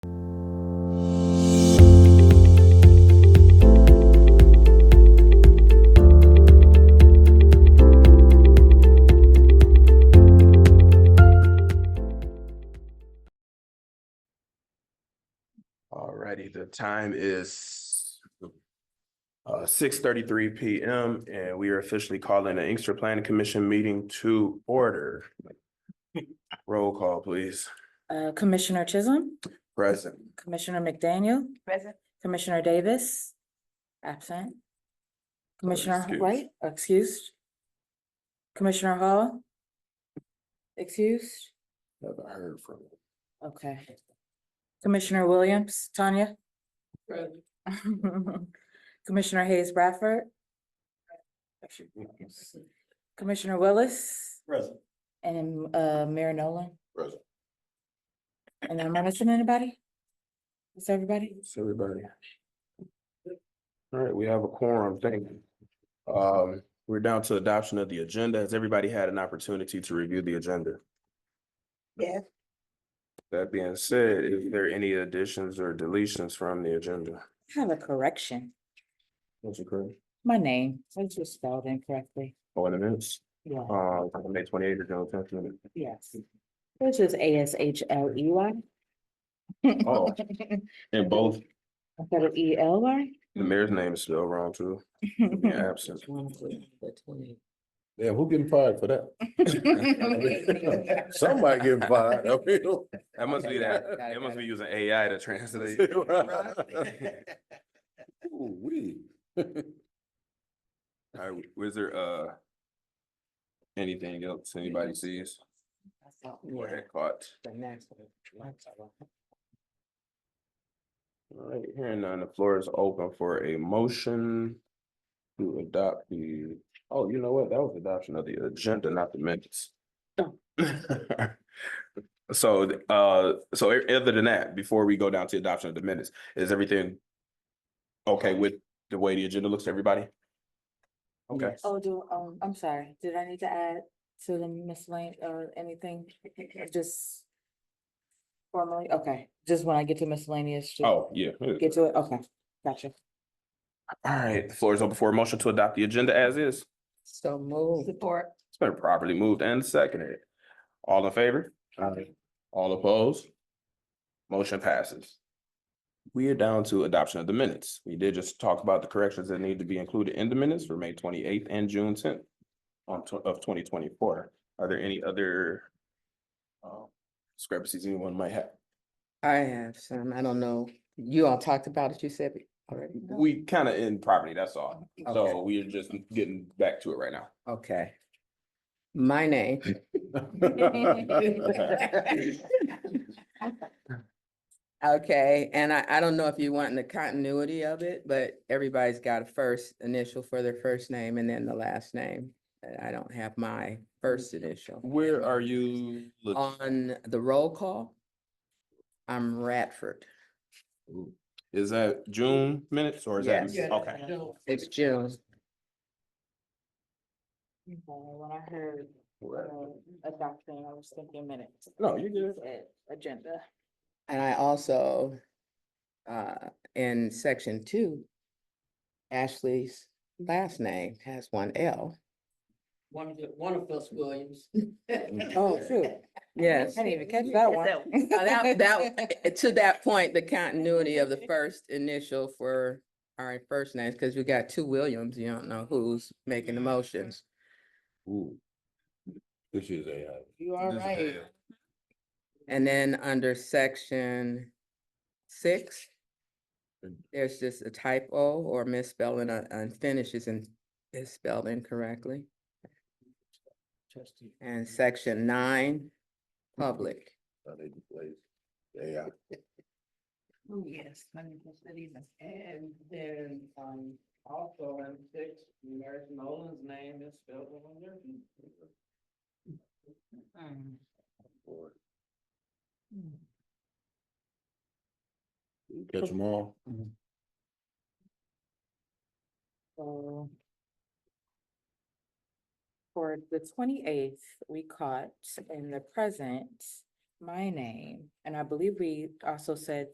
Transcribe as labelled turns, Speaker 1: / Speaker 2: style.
Speaker 1: Alrighty, the time is uh, six thirty-three P M, and we are officially calling the Inkster Planning Commission meeting to order. Roll call, please.
Speaker 2: Uh, Commissioner Chisholm,
Speaker 1: Present.
Speaker 2: Commissioner McDaniel,
Speaker 3: Present.
Speaker 2: Commissioner Davis, absent. Commissioner
Speaker 1: excused.
Speaker 2: White, excused. Commissioner Hall, excused.
Speaker 1: Never heard from him.
Speaker 2: Okay. Commissioner Williams, Tanya? Commissioner Hayes Bradford? Commissioner Willis?
Speaker 4: Present.
Speaker 2: And uh, Mayor Nolan?
Speaker 4: Present.
Speaker 2: And am I missing anybody? Is everybody?
Speaker 1: It's everybody. Alright, we have a quorum, thank you. Um, we're down to adoption of the agenda. Has everybody had an opportunity to review the agenda?
Speaker 3: Yes.
Speaker 1: That being said, is there any additions or deletions from the agenda?
Speaker 2: I have a correction.
Speaker 1: What's occurring?
Speaker 2: My name, it's just spelled incorrectly.
Speaker 1: Oh, and it is,
Speaker 2: Yeah,
Speaker 1: uh, May twenty-eighth, general tenth minute.
Speaker 2: yes. Which is A S H L E Y.
Speaker 1: Oh. And both,
Speaker 2: Instead of E L Y?
Speaker 1: the mayor's name is still wrong too, yeah, absent.
Speaker 4: Yeah, who getting fired for that? Somebody getting fired. I mean,
Speaker 1: That must be that, it must be using AI to translate.
Speaker 4: Ooh-wee.
Speaker 1: Alright, was there, uh, anything else anybody sees? Go ahead, caught. Alright, hearing none, the floor is open for a motion to adopt the, oh, you know what, that was adoption of the agenda, not the minutes.
Speaker 2: Oh.
Speaker 1: So, uh, so e- other than that, before we go down to adoption of the minutes, is everything okay with the way the agenda looks, everybody? Okay,
Speaker 2: Oh, do, um, I'm sorry, did I need to add to the miscellaneous or anything? Just formally, okay, just when I get to miscellaneous, just
Speaker 1: oh, yeah. All
Speaker 2: get to it, okay, gotcha.
Speaker 1: right, the floor is open for a motion to adopt the agenda as is.
Speaker 2: So move.
Speaker 3: Support.
Speaker 1: It's been properly moved and seconded. All in favor? All opposed? Motion passes. We are down to adoption of the minutes. We did just talk about the corrections that need to be included in the minutes for May twenty eighth and June tenth on tw- of twenty twenty four. Are there any other um, discrepancies anyone might have?
Speaker 5: I have some, I don't know, you all talked about it, you said it already?
Speaker 1: We kind of in property, that's all.
Speaker 5: Okay.
Speaker 1: So we are just getting back to it right now.
Speaker 5: Okay. My name. Okay, and I, I don't know if you want the continuity of it, but everybody's got a first initial for their first name and then the last name. And I don't have my first initial.
Speaker 1: Where are you? look-
Speaker 5: On the roll call, I'm Radford.
Speaker 1: Is that June minutes or is that?
Speaker 5: Yes.
Speaker 1: Okay.
Speaker 5: It's June.
Speaker 2: When I heard adopting, I was thinking minutes.
Speaker 1: No, you're good.
Speaker 2: Agenda.
Speaker 5: And I also, uh, in section two, Ashley's last name has one L.
Speaker 6: One of the, one of us Williams.
Speaker 5: Oh, shoot. Yes.
Speaker 2: I didn't even catch that one.
Speaker 5: Uh, That, that, to that point, the continuity of the first initial for our first names, because we got two Williams, you don't know who's making the motions.
Speaker 4: Ooh. This is AI.
Speaker 5: You are
Speaker 1: This is
Speaker 5: right.
Speaker 1: AI.
Speaker 5: And then under section six,
Speaker 4: Mm.
Speaker 5: there's just a typo or misspelling, uh, unfinished is in, is spelled incorrectly. And section nine, public.
Speaker 4: I need to play AI.
Speaker 6: Oh, yes, hundred percent even. And then, um, also in six, Mary Nolan's name is spelled on there.
Speaker 4: Boy.
Speaker 6: Hmm.
Speaker 4: Catch them all.
Speaker 1: Mm-hmm.
Speaker 2: So For the twenty-eighth, we caught in the present my name, and I believe we also said